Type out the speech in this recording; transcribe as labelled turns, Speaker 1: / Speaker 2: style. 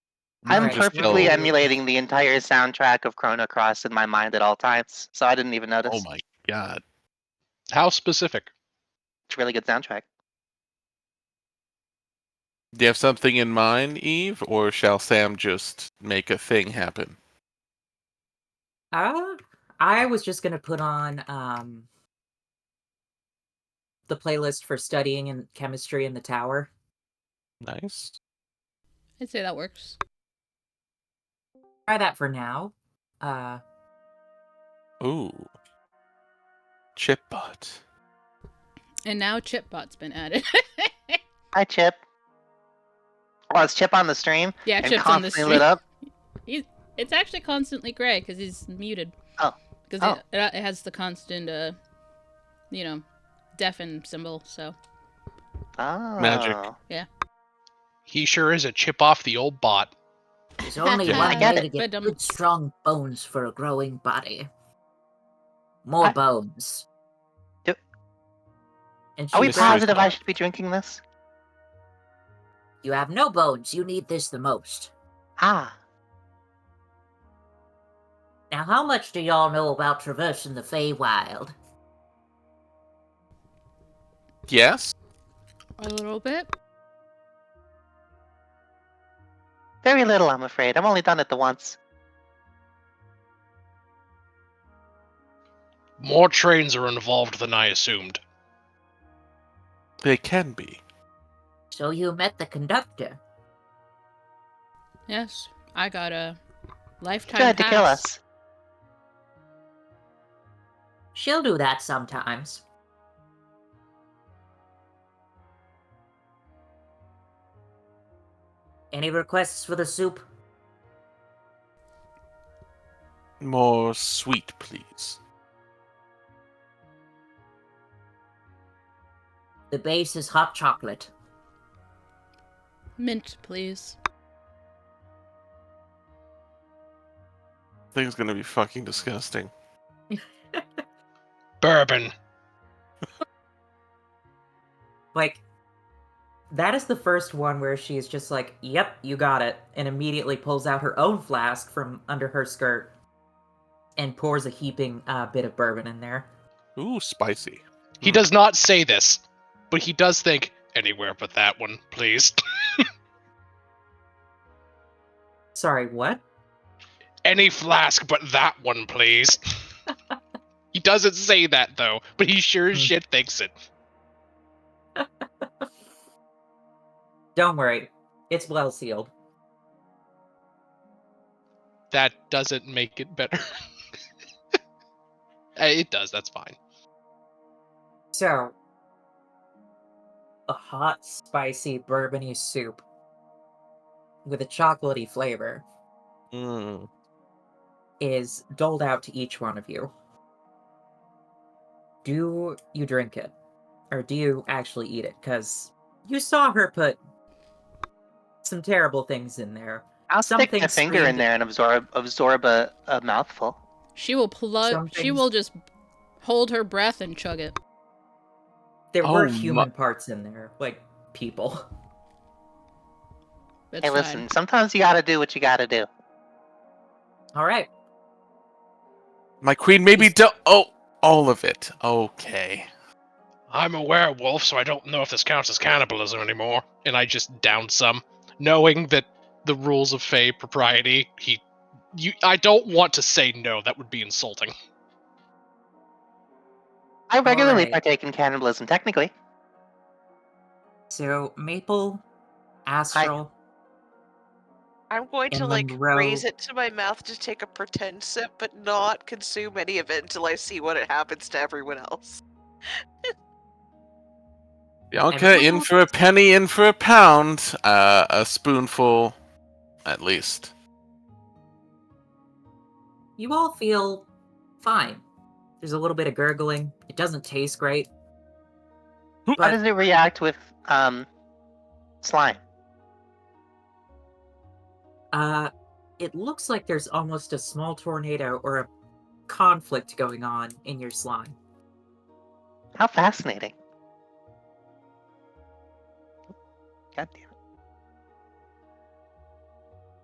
Speaker 1: I'm
Speaker 2: Right.
Speaker 1: perfectly
Speaker 3: So-
Speaker 1: emulating the entire soundtrack of Chrono Cross in my mind at all times, so I didn't even notice.
Speaker 3: Oh my god. How specific?
Speaker 1: It's a really good soundtrack.
Speaker 4: Do you have something in mind, Eve, or shall Sam just make a thing happen?
Speaker 2: Uh, I was just gonna put on um the playlist for studying and chemistry in the tower.
Speaker 4: Nice.
Speaker 5: I'd say that works.
Speaker 2: Try that for now. Uh,
Speaker 4: Ooh. Chipbot.
Speaker 5: And now Chipbot's been added.
Speaker 1: Hi, Chip. Oh, it's Chip on the stream
Speaker 5: yeah,
Speaker 1: and
Speaker 5: Chip's on the
Speaker 1: constantly
Speaker 5: stream.
Speaker 1: lit up.
Speaker 5: It's actually constantly gray because he's muted.
Speaker 1: Oh.
Speaker 5: Because
Speaker 1: Oh.
Speaker 5: it, it has the constant, uh, you know, deafen symbol. So
Speaker 1: Oh,
Speaker 4: Magic.
Speaker 3: He sure is a chip off the old bot.
Speaker 2: there's only
Speaker 4: Yeah, I
Speaker 2: one
Speaker 1: get
Speaker 2: way
Speaker 1: it,
Speaker 2: to get
Speaker 5: but, um,
Speaker 2: good, strong bones for a growing body. More
Speaker 1: I-
Speaker 2: bones.
Speaker 1: Do-
Speaker 2: And she
Speaker 1: Are we
Speaker 4: Mystery
Speaker 2: said,
Speaker 1: positive I
Speaker 4: solved.
Speaker 1: should be drinking this?
Speaker 2: You have no bones. You need this the most.
Speaker 1: Ah,
Speaker 2: Now, how much do y'all know about traversing the Feywild?
Speaker 4: Yes?
Speaker 5: a little bit.
Speaker 1: very little, I'm afraid. I've only done it the once.
Speaker 3: More trains are involved than I assumed.
Speaker 4: They can be.
Speaker 2: So you met the conductor.
Speaker 5: Yes, I got a
Speaker 1: She
Speaker 5: lifetime.
Speaker 1: tried to kill
Speaker 5: pass.
Speaker 1: us.
Speaker 2: She'll do that sometimes. Any requests for the soup?
Speaker 4: More sweet, please.
Speaker 2: The base is hot chocolate.
Speaker 5: Mint, please.
Speaker 4: Thing's gonna be fucking disgusting.
Speaker 3: Bourbon.
Speaker 2: Like, that is the first one where she's just like, yep, you got it, and immediately pulls out her own flask from under her skirt and pours a heaping uh, bit of bourbon in there.
Speaker 4: Ooh, spicy.
Speaker 3: He
Speaker 4: Hmm.
Speaker 3: does not say this, but he does think anywhere but that one, please.
Speaker 2: Sorry, what?
Speaker 3: Any flask but that one, please. he doesn't say that though, but he sure as
Speaker 2: Hmm.
Speaker 3: shit thinks it.
Speaker 2: Don't worry, it's well sealed.
Speaker 3: That doesn't make it better. Uh, it does, that's fine.
Speaker 2: So, a hot, spicy, bourbony soup with a chocolatey flavor
Speaker 4: Mm.
Speaker 2: is doled out to each one of you. Do you drink it? Or do you actually eat it? Because you saw her put some terrible things in there.
Speaker 1: I'll stick
Speaker 2: Something
Speaker 1: my finger in
Speaker 2: screamed-
Speaker 1: there and absorb absorb a, a mouthful.
Speaker 5: She will plug.
Speaker 2: Some
Speaker 5: She
Speaker 2: things-
Speaker 5: will just hold her breath and chug it.
Speaker 2: There were
Speaker 4: Oh my-
Speaker 2: human parts in there, like people.
Speaker 5: That's
Speaker 1: Hey,
Speaker 5: fine.
Speaker 1: listen, sometimes you gotta do what you gotta do.
Speaker 2: All right.
Speaker 4: My queen maybe do- Oh, all of it. Okay.
Speaker 3: I'm a werewolf, so I don't know if this counts as cannibalism anymore. And I just down some, knowing that the rules of Fey propriety. He, you, I don't want to say no. That would be insulting.
Speaker 1: I regularly
Speaker 2: Alright.
Speaker 1: partake in cannibalism, technically.
Speaker 2: So, Maple, Astral.
Speaker 6: I'm going to
Speaker 2: And
Speaker 6: like
Speaker 2: Monroe-
Speaker 6: raise it to my mouth to take a pretend sip, but not consume any of it until I see what it happens to everyone else.
Speaker 4: Bianca, in for a penny, in for a pound. Uh, a spoonful, at least.
Speaker 2: you all feel fine. There's a little bit of gurgling. It doesn't taste great.
Speaker 1: How
Speaker 2: But
Speaker 1: does it react with um slime?
Speaker 2: uh, it looks like there's almost a small tornado or a conflict going on in your slime.
Speaker 1: How fascinating.